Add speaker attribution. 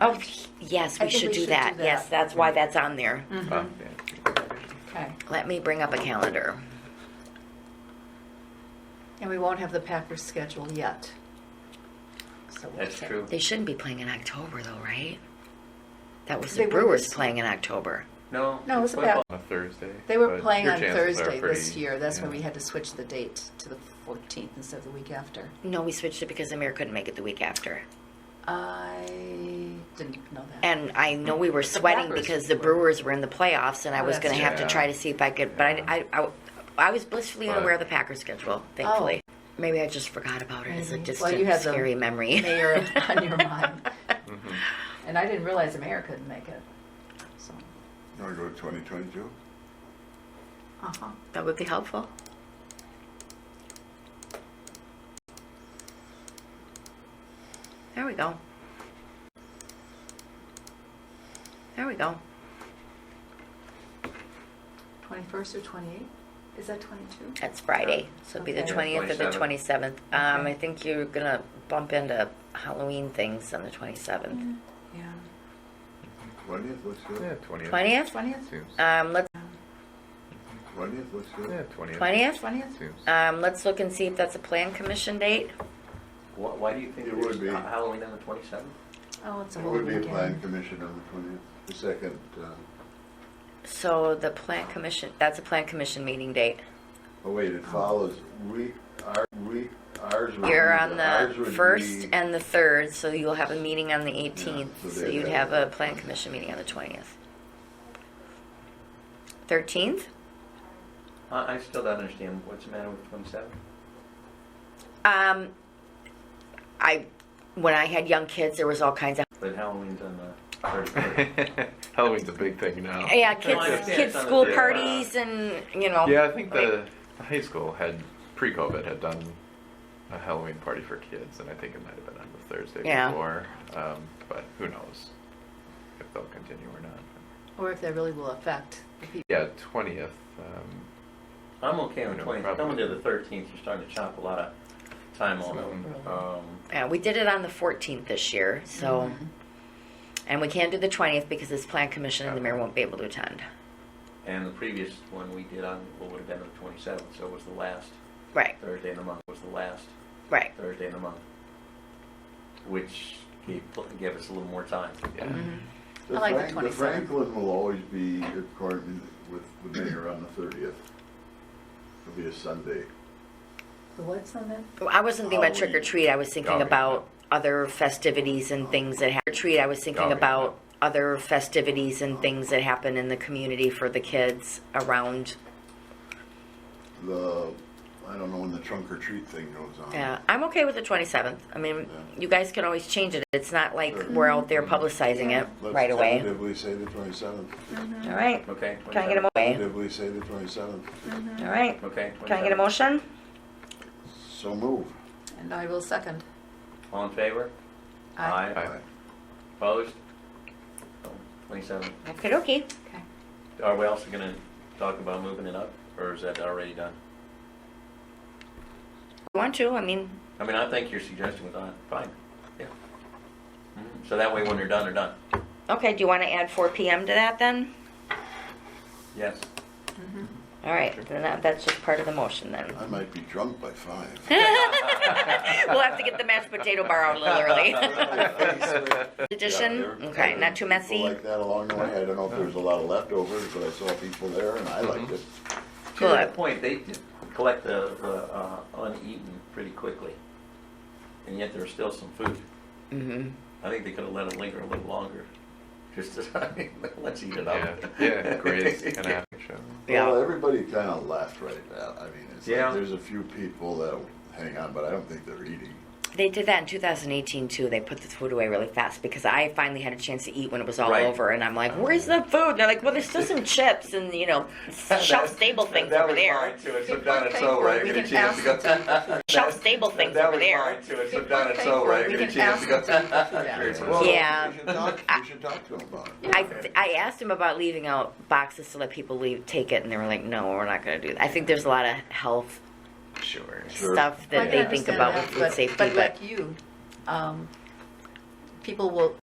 Speaker 1: Oh, yes,
Speaker 2: I think
Speaker 1: we should
Speaker 2: we
Speaker 1: do
Speaker 2: should
Speaker 1: that.
Speaker 2: do that.
Speaker 1: Yes, that's why that's on there.
Speaker 2: Mm-hmm. Okay.
Speaker 1: Let me bring up a calendar.
Speaker 2: And we won't have the Packers schedule yet. So we'll
Speaker 3: That's
Speaker 2: see.
Speaker 3: true.
Speaker 1: They shouldn't be playing in October, though, right? That was
Speaker 2: They
Speaker 1: the
Speaker 2: were
Speaker 1: Brewers
Speaker 2: this-
Speaker 1: playing in October.
Speaker 3: No.
Speaker 2: No, it's
Speaker 3: football
Speaker 2: about-
Speaker 3: on a Thursday.
Speaker 2: They were
Speaker 3: but
Speaker 2: playing
Speaker 3: your
Speaker 2: on
Speaker 3: chances are
Speaker 2: Thursday this
Speaker 3: pretty-
Speaker 2: year. That's why
Speaker 3: yeah.
Speaker 2: we had to switch the date to the 14th instead of the week after.
Speaker 1: No, we switched it because Amir couldn't make it the week after.
Speaker 2: I didn't know that.
Speaker 1: And I know we were
Speaker 2: The
Speaker 1: sweating
Speaker 2: Packers
Speaker 1: because the
Speaker 2: were-
Speaker 1: Brewers were in the playoffs, and I
Speaker 2: Oh,
Speaker 1: was
Speaker 2: that's
Speaker 1: going to have to
Speaker 3: true.
Speaker 1: try to see if I could. But I, I, I, I was blissfully
Speaker 3: But-
Speaker 1: unaware of the Packers schedule, thankfully. Maybe I just forgot about it as a
Speaker 2: Maybe.
Speaker 1: distant,
Speaker 2: Oh. Mm-hmm. Well, you had the
Speaker 1: scary memory.
Speaker 2: mayor on your mind.
Speaker 3: Mhm.
Speaker 2: And I didn't realize America couldn't make it. So,
Speaker 4: You want to go to 2022?
Speaker 2: uh-huh.
Speaker 1: That would be helpful. There we go. There we go.
Speaker 2: 21st or 28th? Is that 22?
Speaker 1: That's Friday, so it'd be the
Speaker 2: Okay.
Speaker 1: twentieth or the twenty-seventh. Um,
Speaker 2: Okay.
Speaker 1: I think you're gonna bump into Halloween things on the twenty-seventh.
Speaker 2: Yeah.
Speaker 4: 20th, what's
Speaker 3: Yeah,
Speaker 4: your,
Speaker 3: 20th.
Speaker 1: Twentieth?
Speaker 2: 20th?
Speaker 3: Seems.
Speaker 1: Um, let's,
Speaker 4: 20th, what's
Speaker 3: Yeah,
Speaker 4: your?
Speaker 3: 20th.
Speaker 1: twentieth?
Speaker 2: 20th?
Speaker 3: Seems.
Speaker 1: Um, let's look and see if that's a plan commission date.
Speaker 5: Why, why do you think
Speaker 4: It
Speaker 5: there's
Speaker 4: would be.
Speaker 5: Ha- Halloween on the 27th?
Speaker 2: Oh, it's a
Speaker 4: It
Speaker 2: whole
Speaker 4: would be a plan
Speaker 2: weekend.
Speaker 4: commission on the 20th, the second, uh,
Speaker 1: So the plan commission, that's a plan commission meeting date.
Speaker 4: oh wait,
Speaker 1: Um,
Speaker 4: it follows, we, our, we, ours would be.
Speaker 1: You're on
Speaker 4: ours
Speaker 1: the
Speaker 4: would
Speaker 1: first
Speaker 4: be-
Speaker 1: and the third, so you'll have a meeting on the
Speaker 4: Yeah, so
Speaker 1: eighteenth, so
Speaker 4: they'd
Speaker 1: you'd
Speaker 4: have-
Speaker 1: have a plan commission meeting on the twentieth. Thirteenth?
Speaker 5: I, I still don't understand what's the matter with 27.
Speaker 1: Um, I, when I had young kids, there was all kinds of,
Speaker 5: But Halloween's on the 31st.
Speaker 3: Halloween's a big thing
Speaker 4: Oh.
Speaker 3: now.
Speaker 1: yeah,
Speaker 5: I
Speaker 1: kids,
Speaker 5: understand
Speaker 1: kids'
Speaker 5: some of
Speaker 1: school
Speaker 5: the- uh,
Speaker 1: parties and, you know.
Speaker 3: Yeah, I think the,
Speaker 1: like-
Speaker 3: the high school had pre-COVID had done a Halloween party for kids, and I think it might have been on the Thursday
Speaker 1: Yeah.
Speaker 3: before. Um, but who knows if they'll continue or not?
Speaker 2: Or if that really will affect the people.
Speaker 3: Yeah, twentieth. Um,
Speaker 5: I'm okay on the
Speaker 3: No
Speaker 5: 20th.
Speaker 3: problem.
Speaker 5: Coming to the 13th, you're starting to chop a lot of time off.
Speaker 3: Mm.
Speaker 5: Um,
Speaker 1: Yeah, we did it on the fourteenth this year, so,
Speaker 2: Mm-hmm.
Speaker 1: and we can't do the twentieth because this plan commission and the mayor won't be able to attend.
Speaker 5: and the previous one we did on what would have been on the 27th, so it was the last
Speaker 1: Right,
Speaker 5: Thursday in the month. Was the last
Speaker 1: right.
Speaker 5: Thursday in the month, which gave, gave us a little more time.
Speaker 3: yeah.
Speaker 2: Mm-hmm. I like the
Speaker 4: Frank-
Speaker 2: 27th.
Speaker 4: Franklin will always be according with the mayor on the 30th. It'll be a Sunday.
Speaker 2: The what's on that?
Speaker 1: Well, I wasn't thinking about trick or
Speaker 4: Halloween.
Speaker 1: treat. I was thinking
Speaker 3: Okay.
Speaker 1: about other festivities and things that happen. Treat. I was thinking
Speaker 3: Okay.
Speaker 1: about other festivities and things that happen in the community for the kids around.
Speaker 4: The, I don't know when the trunk or treat thing goes on.
Speaker 1: Yeah, uh, I'm okay with the 27th. I mean,
Speaker 4: Yeah.
Speaker 1: you guys can always change it. It's not like
Speaker 4: Sure.
Speaker 1: we're out there publicizing it
Speaker 4: Let's
Speaker 1: right away.
Speaker 4: tentatively say the 27th.
Speaker 1: All right.
Speaker 5: Okay?
Speaker 1: Can I get a motion?
Speaker 4: Tentatively say the 27th.
Speaker 1: All right.
Speaker 5: 27th? Okay?
Speaker 1: Can I get a
Speaker 5: 27th.
Speaker 1: motion?
Speaker 4: So move.
Speaker 2: And I will second.
Speaker 5: All in favor?
Speaker 2: Aye.
Speaker 3: Aye.
Speaker 5: Opposed? Twenty-seven.
Speaker 1: Okay, okay.
Speaker 2: Okay.
Speaker 5: Are we also gonna talk about moving it up, or is that already done?
Speaker 1: Want to? I mean,
Speaker 5: I mean, I think your suggestion was on, fine, yeah. Mhm. So that way, when they're done, they're done.
Speaker 1: okay. Do you want to add 4 p.m. to that then?
Speaker 5: Yes.
Speaker 1: All right. Then that, that's just part of the motion then.
Speaker 4: I might be drunk by five.
Speaker 1: we'll have to get the mashed potato bar out a little early. Edition?
Speaker 4: Yeah, there-
Speaker 1: Okay, not too
Speaker 4: people
Speaker 1: messy.
Speaker 4: Like that along the way. I don't know if there was a lot of leftovers, but I saw people there and I liked it.
Speaker 5: To that
Speaker 1: Good.
Speaker 5: point, they did collect the, the, uh, uneaten pretty quickly. And yet there's still some food.
Speaker 1: Mm-hmm.
Speaker 5: I think they could've let it linger a little longer, just to, let's eat it
Speaker 3: Yeah,
Speaker 5: up.
Speaker 3: yeah, greatest kind of show.
Speaker 4: Well,
Speaker 1: Yeah.
Speaker 4: everybody kind of left right now. I mean, it's
Speaker 5: Yeah.
Speaker 4: like, there's a few people that hang on, but I don't think they're eating.
Speaker 1: They did that in 2018 too. They put the food away really fast because I finally had a chance to eat when it was all
Speaker 5: Right.
Speaker 1: over, and I'm like, "Where's the food?" And they're like, "Well, there's still some chips and you know, shelf stable things
Speaker 5: That
Speaker 1: over
Speaker 5: was
Speaker 1: there."
Speaker 5: mine, too. It's done, it's over. I
Speaker 2: We
Speaker 5: get a
Speaker 2: can
Speaker 5: chance to go-
Speaker 2: ask them for food.
Speaker 1: Shelf stable things
Speaker 5: That
Speaker 1: over
Speaker 5: was
Speaker 1: there.
Speaker 5: mine, too. It's done, it's over. I
Speaker 2: We
Speaker 5: get a
Speaker 2: can
Speaker 5: chance to go-
Speaker 2: ask them to take the food out.
Speaker 5: Very
Speaker 3: Well,
Speaker 5: much.
Speaker 1: Yeah.
Speaker 4: We should talk, we should talk to them about it.
Speaker 1: I, I asked him about leaving out boxes to let people leave take it, and they were like, "No, we're not going to do that." I think there's a lot of health
Speaker 3: Sure.
Speaker 4: Sure.
Speaker 1: stuff
Speaker 2: Well, I
Speaker 1: that they
Speaker 2: can
Speaker 1: think
Speaker 2: understand
Speaker 1: about
Speaker 2: that,
Speaker 1: with food
Speaker 2: but-
Speaker 1: safety,
Speaker 2: But like you, um, people will,